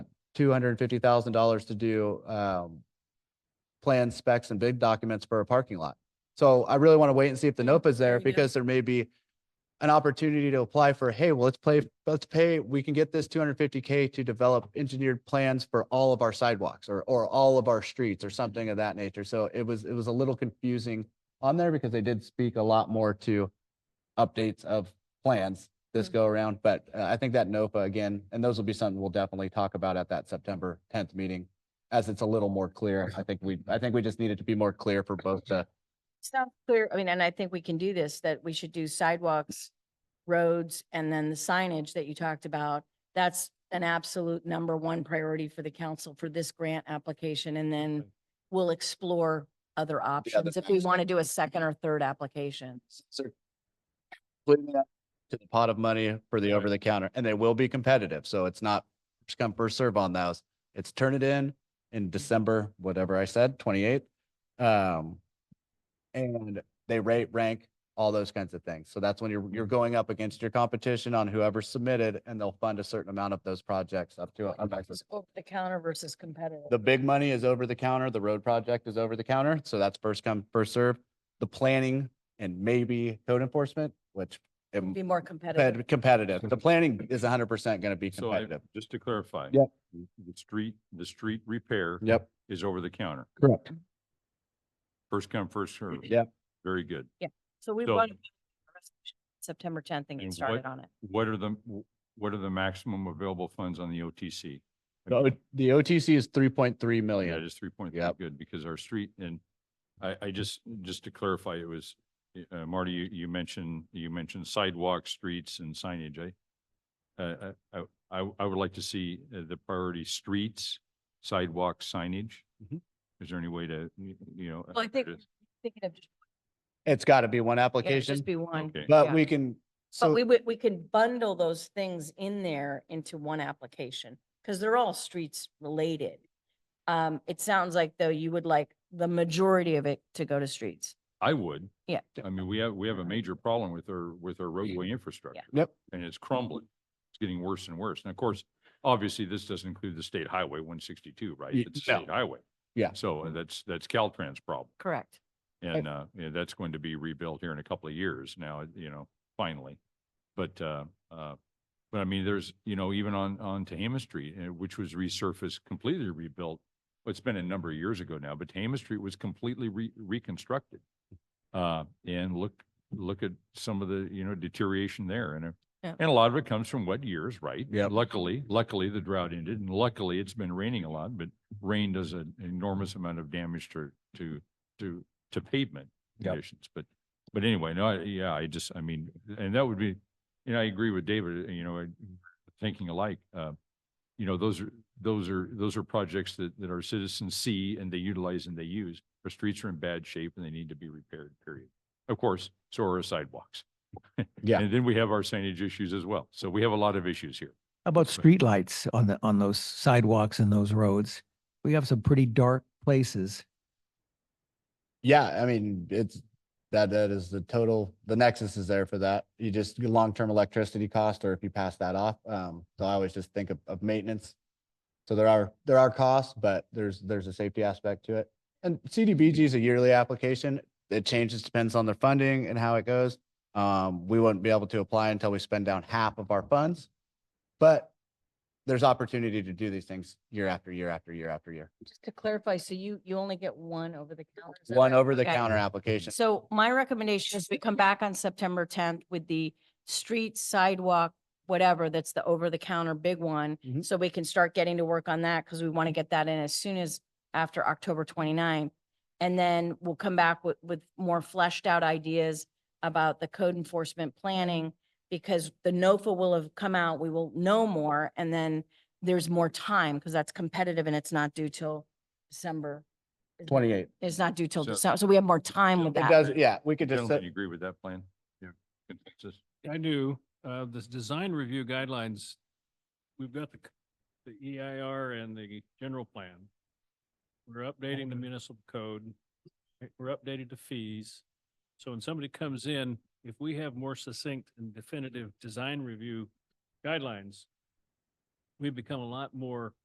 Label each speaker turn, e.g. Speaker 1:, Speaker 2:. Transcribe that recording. Speaker 1: two hundred and fifty thousand dollars to do um, plans, specs, and big documents for a parking lot. So I really want to wait and see if the NOPA is there
Speaker 2: There you go.
Speaker 1: because there may be an opportunity to apply for, hey, well, let's play, let's pay, we can get this two hundred and fifty K to develop engineered plans for all of our sidewalks or, or all of our streets or something of that nature. So it was, it was a little confusing on there because they did speak a lot more to updates of plans this
Speaker 2: Mhm.
Speaker 1: go around, but uh, I think that NOPA again, and those will be something we'll definitely talk about at that September tenth meeting. As it's a little more clear, I think we, I think we just need it to be more clear for both the,
Speaker 2: Sounds clear. I mean, and I think we can do this, that we should do sidewalks, roads, and then the signage that you talked about. That's an absolute number one priority for the council for this grant application. And then we'll explore other options if we want to do a second or third application.
Speaker 1: sir. completely up To the pot of money for the over the counter and they will be competitive. So it's not just come first serve on those. It's turn it in in December, whatever I said, twenty eighth. Um, and they rate, rank, all those kinds of things. So that's when you're, you're going up against your competition on whoever submitted and they'll fund a certain amount of those projects up to. a- a maximum.
Speaker 2: Over the counter versus competitive.
Speaker 1: The big money is over the counter. The road project is over the counter. So that's first come, first serve. The planning and maybe code enforcement, which it
Speaker 2: Be more
Speaker 1: Fed-
Speaker 2: competitive.
Speaker 1: competitive. The planning is hundred percent going to be
Speaker 3: So I,
Speaker 1: competitive.
Speaker 3: just to clarify.
Speaker 1: Yep.
Speaker 3: The street, the street repair
Speaker 1: Yep.
Speaker 3: is over the counter.
Speaker 1: Correct.
Speaker 3: First come, first served.
Speaker 1: Yep.
Speaker 3: Very good.
Speaker 2: So we
Speaker 3: so-
Speaker 2: want September tenth and get
Speaker 3: And
Speaker 2: started
Speaker 3: what-
Speaker 2: on it.
Speaker 3: What are the, what are the maximum available funds on the OTC?
Speaker 1: The O- the OTC is three point three
Speaker 3: Yeah,
Speaker 1: million.
Speaker 3: just three point three,
Speaker 1: Yep.
Speaker 3: good, because our street and I, I just, just to clarify, it was, uh, Marty, you, you mentioned, you mentioned sidewalks, streets and signage, I uh, I, I- I, I would like to see uh, the priority streets, sidewalk signage.
Speaker 1: Mhm.
Speaker 3: Is there any way to, you you know? uh,
Speaker 2: Well, I think,
Speaker 3: just-
Speaker 2: thinking of, just-
Speaker 1: It's got to be one
Speaker 2: yeah, it'd
Speaker 1: application,
Speaker 2: just be one.
Speaker 3: Okay.
Speaker 1: but
Speaker 2: yeah.
Speaker 1: we can,
Speaker 2: But we
Speaker 1: so,
Speaker 2: would, we could bundle those things in there into one application, because they're all streets related. Um, it sounds like though you would like the majority of it to go to streets.
Speaker 3: I would.
Speaker 2: Yeah.
Speaker 3: I mean, we have, we have a major problem with our, with our roadway infrastructure.
Speaker 1: Yep.
Speaker 3: And it's crumbling. It's getting worse and worse. And of course, obviously, this doesn't include the state highway one sixty-two, right?
Speaker 1: Y-
Speaker 3: It's a
Speaker 1: no.
Speaker 3: state highway.
Speaker 1: Yeah.
Speaker 3: So uh, that's, that's Caltrans problem.
Speaker 2: Correct.
Speaker 3: And, uh, yeah, that's going to be rebuilt here in a couple of years now, you know, finally. But, uh, uh, but I mean, there's, you know, even on, on Tehama Street, uh, which was resurfaced, completely rebuilt. well, It's been a number of years ago now, but Tehama Street was completely re- reconstructed. Uh, and look, look at some of the, you know, deterioration there and,
Speaker 2: Yeah.
Speaker 3: a- and a lot of it comes from wet years, right?
Speaker 1: Yep.
Speaker 3: Luckily, luckily the drought ended and luckily it's been raining a lot, but rain does an enormous amount of damage to, to, to, to pavement
Speaker 1: Yep.
Speaker 3: conditions. But, but anyway, no, I- yeah, I just, I mean, and that would be, and I agree with David, uh, you know, thinking alike. uh, You know, those are, those are, those are projects that, that our citizens see and they utilize and they use. Our streets are in bad shape and they need to be repaired, period. Of course, so are our sidewalks.
Speaker 1: Yeah.
Speaker 3: And then we have our signage issues as well. So we have a lot of issues here.
Speaker 4: How about
Speaker 3: But-
Speaker 4: streetlights on the, on those sidewalks and those roads? We have some pretty dark places.
Speaker 1: yeah, I mean, it's, that, that is the total, the nexus is there for that. You just, your long-term electricity cost, or if you pass that off, um, so I always just think of, of maintenance. So there are, there are costs, but there's, there's a safety aspect to it. And CDBG is a yearly application. It changes, depends on their funding and how it goes. Um, we wouldn't be able to apply until we spend down half of our funds. But there's opportunity to do these things year after year after year after year.
Speaker 2: Just to clarify, so you, you only get one over the counter? is that
Speaker 1: One
Speaker 2: right?
Speaker 1: over the
Speaker 2: Okay.
Speaker 1: counter application.
Speaker 2: So my recommendation is we come back on September tenth with the street sidewalk, whatever, that's the over the counter big one.
Speaker 1: Mhm.
Speaker 2: So we can start getting to work on that because we want to get that in as soon as after October 29th. And then we'll come back with, with more fleshed out ideas about the code enforcement planning because the NOFA will have come out, we will know more, and then there's more time because that's competitive and it's not due till December. isn't it?
Speaker 1: Twenty-eight.
Speaker 2: It's not due till
Speaker 3: So-
Speaker 2: December, so we have more time with
Speaker 1: It
Speaker 2: that.
Speaker 1: does, yeah, we could just,
Speaker 3: Gentlemen,
Speaker 1: set-
Speaker 3: you agree with that plan? Yeah. Consensus?
Speaker 5: I do. Uh, this design review guidelines, we've got the, c- the EIR and the general plan. We're updating the municipal code. We're updated to fees. So when somebody comes in, if we have more succinct and definitive design review guidelines, we become a lot more